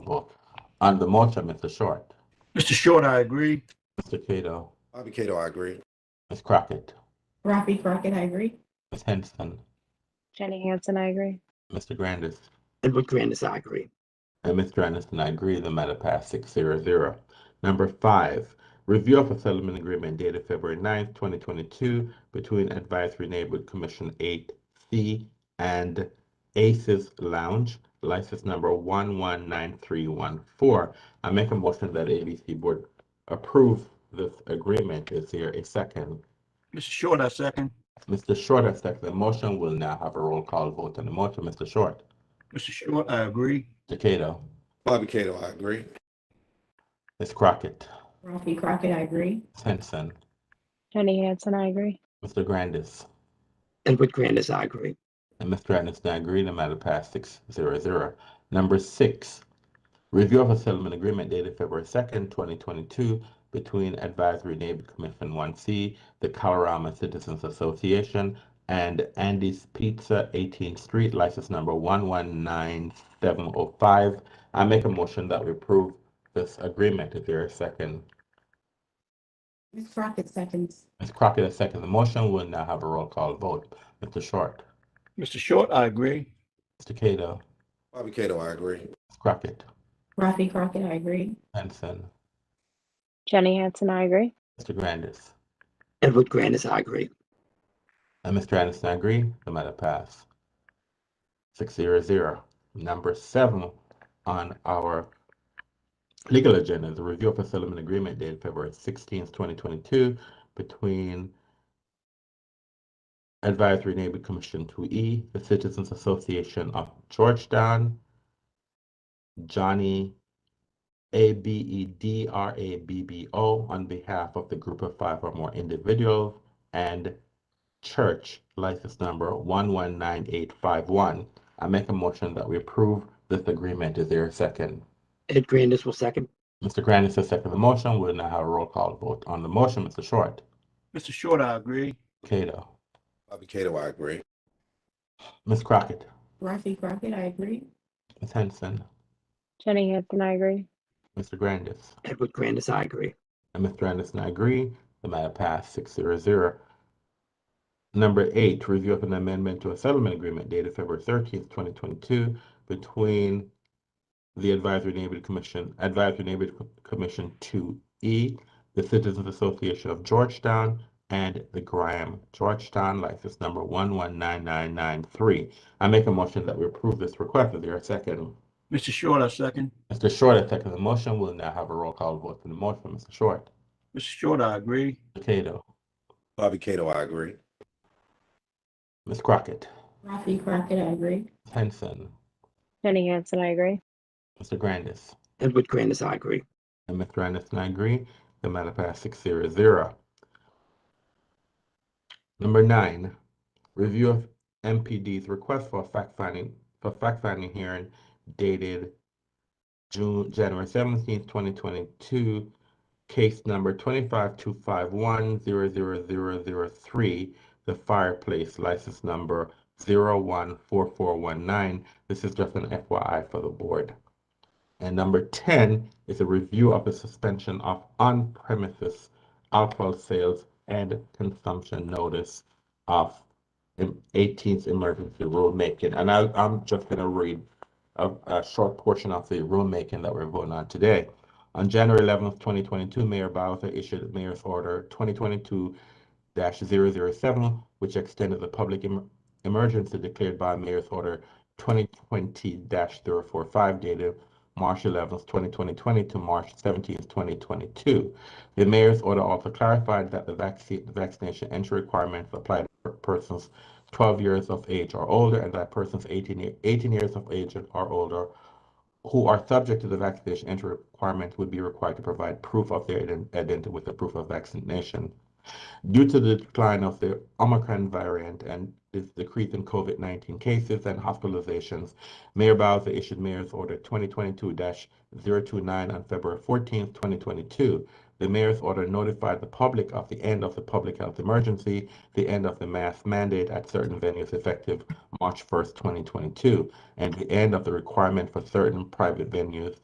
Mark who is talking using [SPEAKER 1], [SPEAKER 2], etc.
[SPEAKER 1] On the motion, Mr. Short,
[SPEAKER 2] Mr. Short, I agree.
[SPEAKER 1] Mr. Cato,
[SPEAKER 3] Bobby Cato, I agree.
[SPEAKER 1] Ms. Crockett,
[SPEAKER 4] Rafi Crockett, I agree.
[SPEAKER 1] Ms. Henson,
[SPEAKER 5] Jenny Hansen, I agree.
[SPEAKER 1] Mr. Grandis,
[SPEAKER 6] Edward Grandis, I agree.
[SPEAKER 1] and Mr. Anderson, I agree, the matter passed six zero zero. Number five, review of a settlement agreement dated February 9th, twenty twenty-two between Advisory Neighborhood Commission eight C and Aces Lounge, license number one one nine three one four. I make a motion that ABC Board approve this agreement. Is there a second?
[SPEAKER 2] Mr. Short, I second.
[SPEAKER 1] Mr. Short has seconded the motion. We'll now have a roll call vote on the motion. Mr. Short,
[SPEAKER 2] Mr. Short, I agree.
[SPEAKER 1] Mr. Cato,
[SPEAKER 3] Bobby Cato, I agree.
[SPEAKER 1] Ms. Crockett,
[SPEAKER 4] Rafi Crockett, I agree.
[SPEAKER 1] Ms. Henson,
[SPEAKER 5] Jenny Hansen, I agree.
[SPEAKER 1] Mr. Grandis,
[SPEAKER 6] Edward Grandis, I agree.
[SPEAKER 1] and Mr. Anderson, I agree. The matter passed six zero zero. Number six, review of a settlement agreement dated February second, twenty twenty-two between Advisory Neighborhood Commission one C, the Colorama Citizens Association, and Andy's Pizza, Eighteenth Street, license number one one nine seven oh five. I make a motion that we approve this agreement. Is there a second?
[SPEAKER 4] Ms. Crockett seconds.
[SPEAKER 1] Ms. Crockett has seconded the motion. We'll now have a roll call vote. Mr. Short,
[SPEAKER 2] Mr. Short, I agree.
[SPEAKER 1] Mr. Cato,
[SPEAKER 3] Bobby Cato, I agree.
[SPEAKER 1] Ms. Crockett,
[SPEAKER 4] Rafi Crockett, I agree.
[SPEAKER 1] Henson,
[SPEAKER 5] Jenny Hansen, I agree.
[SPEAKER 1] Mr. Grandis,
[SPEAKER 6] Edward Grandis, I agree.
[SPEAKER 1] and Mr. Anderson, I agree. The matter pass. Six zero zero. Number seven on our legal agenda is a review of a settlement agreement dated February sixteenth, twenty twenty-two between Advisory Neighborhood Commission two E, the Citizens Association of Georgetown, Johnny A B E D R A B B O on behalf of the group of five or more individuals and Church, license number one one nine eight five one. I make a motion that we approve this agreement. Is there a second?
[SPEAKER 6] Ed Grandis will second.
[SPEAKER 1] Mr. Grandis has seconded the motion. We'll now have a roll call vote on the motion. Mr. Short,
[SPEAKER 2] Mr. Short, I agree.
[SPEAKER 1] Cato,
[SPEAKER 3] Bobby Cato, I agree.
[SPEAKER 1] Ms. Crockett,
[SPEAKER 4] Rafi Crockett, I agree.
[SPEAKER 1] Ms. Henson,
[SPEAKER 5] Jenny Hansen, I agree.
[SPEAKER 1] Mr. Grandis,
[SPEAKER 6] Edward Grandis, I agree.
[SPEAKER 1] and Mr. Anderson, I agree. The matter passed six zero zero. Number eight, review of an amendment to a settlement agreement dated February thirteenth, twenty twenty-two between the Advisory Neighborhood Commission, Advisory Neighborhood Co- Commission two E, the Citizens Association of Georgetown, and the Graham Georgetown license number one one nine nine nine three. I make a motion that we approve this request. Is there a second?
[SPEAKER 2] Mr. Short, I second.
[SPEAKER 1] Mr. Short has seconded the motion. We'll now have a roll call vote on the motion. Mr. Short,
[SPEAKER 2] Mr. Short, I agree.
[SPEAKER 1] Cato,
[SPEAKER 3] Bobby Cato, I agree.
[SPEAKER 1] Ms. Crockett,
[SPEAKER 4] Rafi Crockett, I agree.
[SPEAKER 1] Henson,
[SPEAKER 5] Jenny Hansen, I agree.
[SPEAKER 1] Mr. Grandis,
[SPEAKER 6] Edward Grandis, I agree.
[SPEAKER 1] and Mr. Anderson, I agree. The matter passed six zero zero. Number nine, review of MPD's request for a fact-finding, for fact-finding hearing dated June, January seventeenth, twenty twenty-two, case number twenty-five two five one zero zero zero zero three, the fireplace license number zero one four four one nine. This is just an FYI for the board. And number 10 is a review of the suspension of on-premises alcohol sales and consumption notice of em- 18th emergency rulemaking. And I, I'm just going to read a, a short portion of the rulemaking that we're voting on today. On January 11th, 2022, Mayor Bowser issued Mayor's Order 2022 007, which extended the public em- emergency declared by Mayor's Order 2020 045 dated March 11th, 2020 to March 17th, 2022. The mayor's order also clarified that the vaccine, vaccination entry requirements apply to persons 12 years of age or older and that persons 18, ye- 18 years of age or older who are subject to the vaccination entry requirement would be required to provide proof of their ident- identity with the proof of vaccination. Due to the decline of the Omicron variant and this decrease in COVID 19 cases and hospitalizations, Mayor Bowser issued Mayor's Order 2022-029 on February 14, 2022. The mayor's order notified the public of the end of the public health emergency, the end of the mask mandate at certain venues effective March 1st, 2022, and the end of the requirement for certain private venues